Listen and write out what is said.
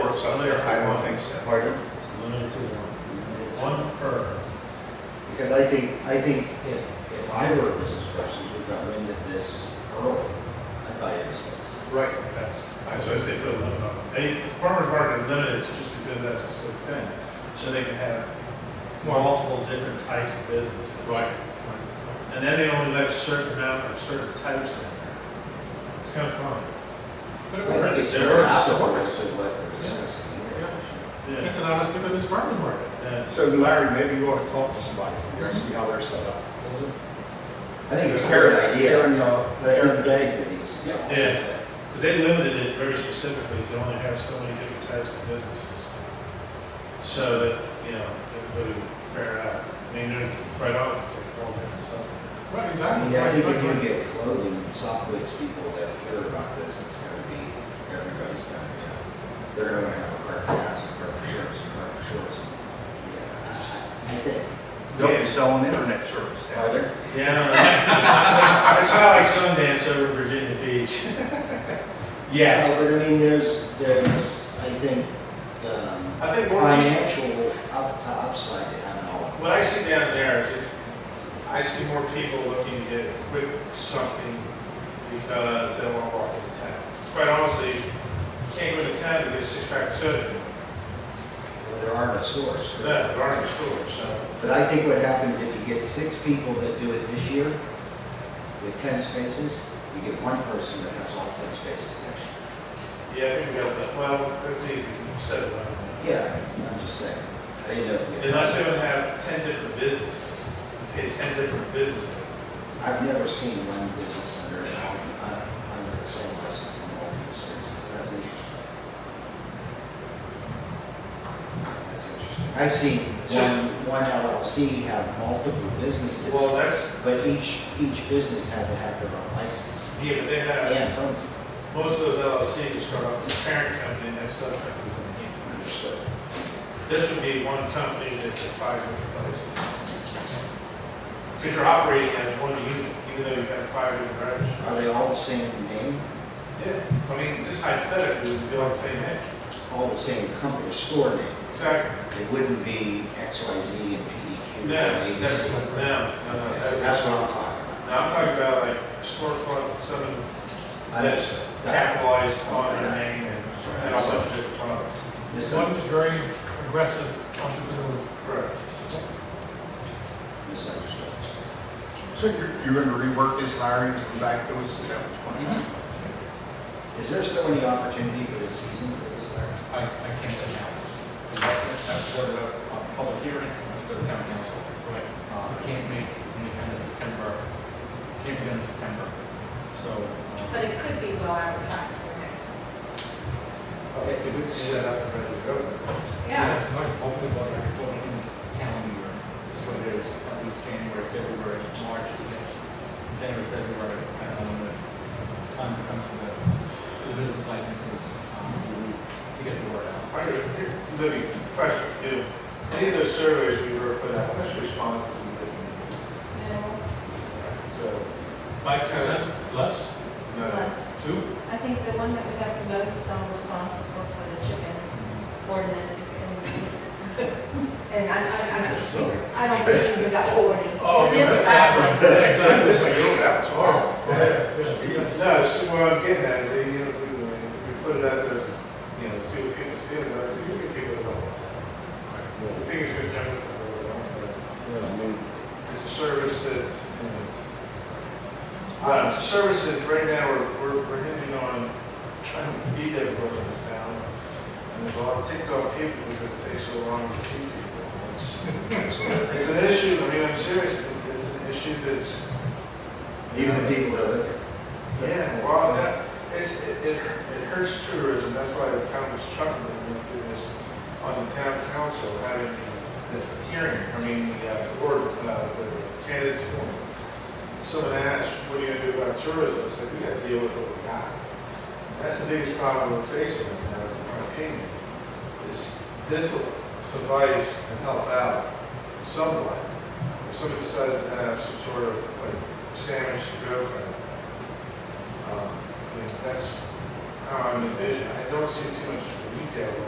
works out there, I don't think so. Pardon? It's limited to one, one per. Because I think, I think if, if I were a business person who got wind of this early, I'd buy it this way. Right. That's, That's why I say put a limit on it. They, farmer's market limited is just because that's a specific thing. So they can have multiple different types of businesses. right. And then they only let a certain amount of certain types in there. It's kind of fun. But it I think works. it's It sort of works. out of order, so what we're discussing here. Yeah. It's an honest to goodness farmer's market. Yeah. So Larry, maybe you ought to talk to somebody, you know, see how they're set up. I think it's a great idea. Mm-hmm. Karen, uh, But Karen every day that needs to be on. Yeah. Because they limited it very specifically to only have so many different types of businesses. So that, you know, everybody would fare out. I mean, there's, quite honestly, it's like all different stuff. Right, I exactly. mean, I Right, think if right, you get clothing, and soft goods people that hear about this, it's gonna be, everybody's gonna, you know, they're gonna have a cart for hats, a cart for shirts, a cart for shorts. I think. They'll be selling internet service down Are there. there? Yeah, it's not like Sundance over Virginia Beach. Yes. No, But I mean, there's, there's, I think, um, I think more people, financial up to upside to having all of what I see down there is, I see more people looking to get a quick something because they want to walk into town. Quite honestly, you can't go to town to get six pack of soda. them. Well, there are no stores. No, there aren't stores, so. But I think what happens if you get six people that do it this year with ten spaces, you get one person that has all ten spaces next year. Yeah, I think we got that. Well, that's easy. You said it. Yeah, I'm just saying. I didn't know if you- Unless they would have ten different businesses, okay, ten different business licenses. I've never seen one business under, uh, under the same license in all these spaces. That's interesting. That's interesting. I've seen one, one LLC have multiple businesses. Well, that's, But each, each business had to have their own license yeah, but they have, and phone most of those LLCs start off with a parent company and have subcompanies underneath. understood. This would be one company that's five different places. Because you're operating as one unit, even though you have five different branches. Are they all the same name, Yeah. I mean, just hypothetically, we'd be all the same name. all the same company or store name? Exactly. It wouldn't be XYZ and E PDQ and No, that's, no, no, ABC. no. Okay, so that's- that's what I'm talking about. Now, I'm talking about like storefront, some I that's understood. That- capitalized on their name and and all that different products. mis- One is very aggressive entrepreneur. Correct. Misunderstood. So you're, you're gonna rework this hiring, come back to us, is that what you want? Is there still any opportunity for this season for this? Larry? I, I can't say now. That's sort of a a public hearing, that's for the town council. Right. Uh, I can't make any kind of September, can't be done in September. So, But uh, it could be well advertised for next. Okay, we could set up and ready to go. Yeah, yes, like, hopefully by the following calendar year, so there's at least January, February, March, you know, January, February, I don't know, when the time comes for the, the business licenses, um, to get the word out. All right, here, Libby, question, do any of those surveys we were put out, how much responses did we get? no, So, Mike, Less, less, no, less. two? I think the one that we got the most um, responses were for the chicken ordinance. And I, I, I just, I don't think we got forty. Oh, This yes, happened. exactly. This is your house, wow. yes, yes. No, so what I'm getting at is, you know, if we, if we put it out there, you know, see what people's feelings are, you can people it all. The thing is, we're jumping from where we're going, Yeah, I mean, but it's a service that, you know, uh, it's a service that right now we're, we're, we're hinging on trying to be that for in this town. And there's a lot of TikTok people because it takes so long to feed people. It's- absolutely. It's an issue, I mean, I'm serious, It's- it's an issue that's, Even the people that live here. yeah, well, that, it, it, it it hurts tourism, that's why the town was chuckling went through this on the town council, having the hearing, I mean, the, uh, board, uh, the candidates forum. Someone asked, what are you gonna do about tourism? I said, we gotta deal with what we got. That's the biggest problem we're facing right now, is in my opinion, is this will suffice and help out somewhat. If somebody decides to have some sort of like sandwich to go kind of thing. Um, I mean, that's how I'm envisioning. I don't see too much retail going